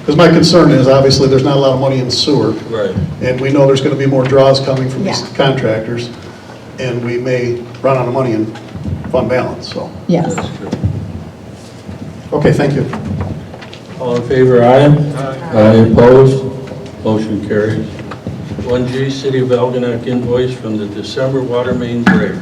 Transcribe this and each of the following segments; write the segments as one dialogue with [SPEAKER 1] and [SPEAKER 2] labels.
[SPEAKER 1] Because my concern is, obviously, there's not a lot of money in sewer.
[SPEAKER 2] Right.
[SPEAKER 1] And we know there's going to be more draws coming from these
[SPEAKER 3] Yeah.
[SPEAKER 1] contractors, and we may run out of money in fund balance, so.
[SPEAKER 3] yes.
[SPEAKER 2] That's true.
[SPEAKER 1] Okay, thank you.
[SPEAKER 2] All in favor, aye? Aye. Opposed? Motion carries. 1G, City of Algonac invoice from the December water main break.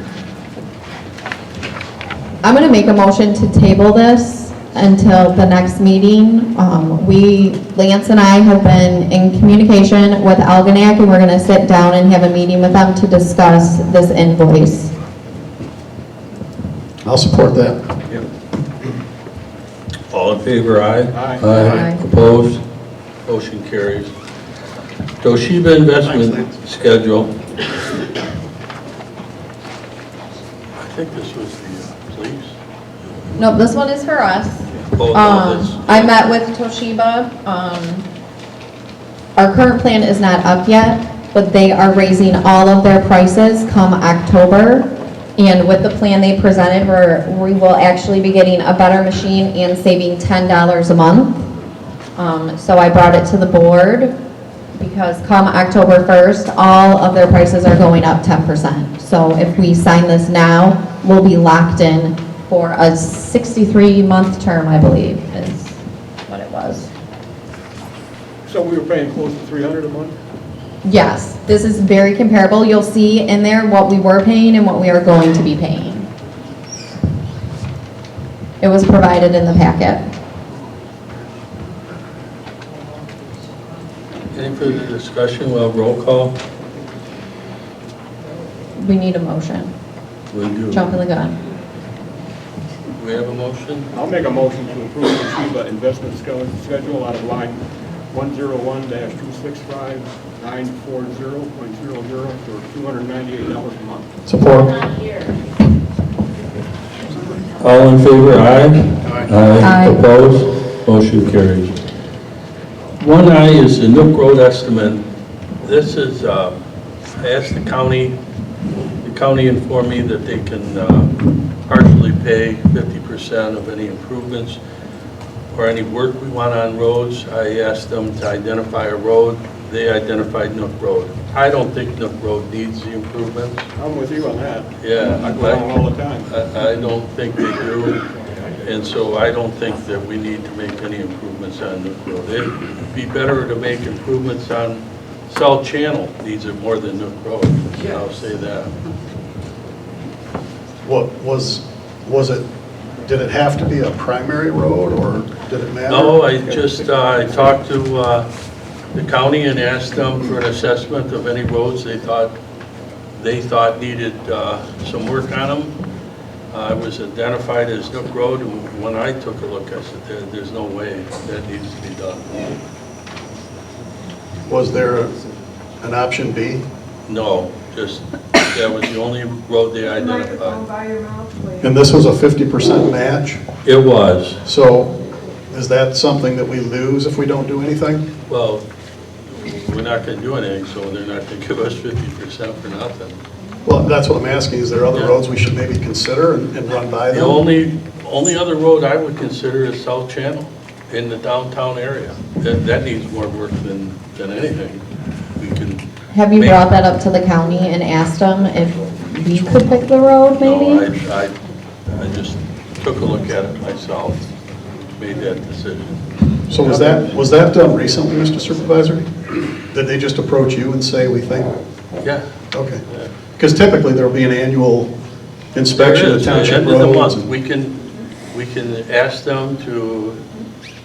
[SPEAKER 3] I'm going to make a motion to table this until the next meeting. Um, We, Lance and I have been in communication with Algonac, and we're going to sit down and have a meeting with them to discuss this invoice.
[SPEAKER 1] I'll support that.
[SPEAKER 2] All in favor, aye?
[SPEAKER 3] Aye.
[SPEAKER 2] Opposed? Motion carries. Toshiba investment
[SPEAKER 1] Thanks,
[SPEAKER 2] schedule. I think this was the uh, police.
[SPEAKER 3] No, this one is for us.
[SPEAKER 2] Oh, no, this-
[SPEAKER 3] Um, I met with Toshiba. Um, Our current plan is not up yet, but they are raising all of their prices come October. And with the plan they presented, we're, we will actually be getting a better machine and saving $10 a month. Um, So I brought it to the board because come October 1st, all of their prices are going up 10%. So if we sign this now, we'll be locked in for a 63-month term, I believe, is what it was.
[SPEAKER 4] So we were paying close to 300 a month?
[SPEAKER 3] Yes, this is very comparable. You'll see in there what we were paying and what we are going to be paying. It was provided in the packet.
[SPEAKER 2] Any further discussion? Well, roll call.
[SPEAKER 3] We need a motion.
[SPEAKER 2] We do.
[SPEAKER 3] Jumping the gun.
[SPEAKER 2] We have a motion?
[SPEAKER 4] I'll make a motion to approve the Toshiba investment sched- schedule out of line 101-265-940.00 for $298 a month.
[SPEAKER 1] Support.
[SPEAKER 2] All in favor, aye?
[SPEAKER 3] Aye.
[SPEAKER 2] Opposed? Motion carries. One aye is the Nook Road estimate. This is, uh, I asked the county, the county informed me that they can uh, partially pay 50% of any improvements or any work we want on roads. I asked them to identify a road. They identified Nook Road. I don't think Nook Road needs the improvements.
[SPEAKER 4] I'm with you on that.
[SPEAKER 2] Yeah.
[SPEAKER 4] I go on all the time.
[SPEAKER 2] I I don't think they do, and so I don't think that we need to make any improvements on Nook Road. It'd be better to make improvements on South Channel, needs it more than Nook Road, I'll say that.
[SPEAKER 1] What, was, was it, did it have to be a primary road, or did it matter?
[SPEAKER 2] No, I just, uh, I talked to uh, the county and asked them for an assessment of any roads they thought, they thought needed uh, some work on them. Uh, It was identified as Nook Road, and when I took a look, I said, "There- there's no way that needs to be done.
[SPEAKER 1] Was there an option B?
[SPEAKER 2] No, just, that was the only road they
[SPEAKER 5] Microphone
[SPEAKER 2] identified.
[SPEAKER 5] by your mouth, please.
[SPEAKER 1] And this was a 50% match,
[SPEAKER 2] It was,
[SPEAKER 1] so is that something that we lose if we don't do anything?
[SPEAKER 2] well, we're not going to do anything, so they're not going to give us 50% for nothing.
[SPEAKER 1] Well, that's what I'm asking, is there other
[SPEAKER 2] Yeah.
[SPEAKER 1] roads we should maybe consider and and run by
[SPEAKER 2] The
[SPEAKER 1] them?
[SPEAKER 2] only, only other road I would consider is South Channel in the downtown area. That, that needs more work than, than anything. We can.
[SPEAKER 3] Have you
[SPEAKER 2] make-
[SPEAKER 3] brought that up to the county and asked them if we could pick the road,
[SPEAKER 2] No,
[SPEAKER 3] maybe?
[SPEAKER 2] I, I, I just took a look at it myself, made that decision.
[SPEAKER 1] So was that, was that done recently, Mr. Supervisor? Did they just approach you and say, we think?
[SPEAKER 2] Yeah.
[SPEAKER 1] Okay. Because typically, there'll be an annual inspection
[SPEAKER 2] There
[SPEAKER 1] of
[SPEAKER 2] is,
[SPEAKER 1] township
[SPEAKER 2] End of the
[SPEAKER 1] roads.
[SPEAKER 2] month, we can, we can ask them to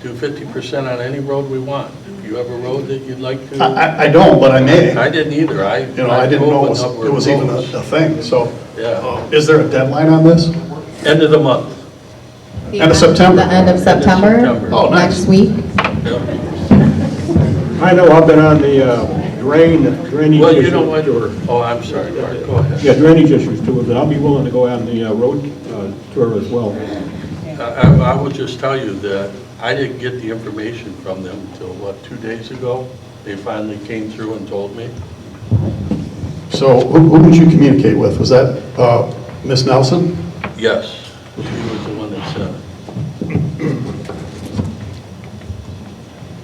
[SPEAKER 2] do 50% on any road we want. If you have a road that you'd like
[SPEAKER 1] I-
[SPEAKER 2] to,
[SPEAKER 1] I, I don't, but I may.
[SPEAKER 2] I didn't either, I.
[SPEAKER 1] You know, I didn't know it was,
[SPEAKER 2] drove a number
[SPEAKER 1] it
[SPEAKER 2] of
[SPEAKER 1] was even a
[SPEAKER 2] roads.
[SPEAKER 1] a thing, so.
[SPEAKER 2] Yeah.
[SPEAKER 1] uh, Is there a deadline on this?
[SPEAKER 2] End of the month.
[SPEAKER 1] End of September.
[SPEAKER 3] The end of September?
[SPEAKER 2] September.
[SPEAKER 1] Oh, nice.
[SPEAKER 3] Next week?
[SPEAKER 2] Yep.
[SPEAKER 4] I know, I've been on the uh, drain, drainage
[SPEAKER 2] Well, you
[SPEAKER 4] issue.
[SPEAKER 2] know what, oh, I'm sorry, Mark, go ahead.
[SPEAKER 4] Yeah, drainage issues too, but I'll be willing to go on the uh, road uh, tour as well.
[SPEAKER 2] I, I- I will just tell you that I didn't get the information from them until, what, two days ago? They finally came through and told me.
[SPEAKER 1] So who who did you communicate with? Was that uh, Ms. Nelson?
[SPEAKER 2] Yes, she was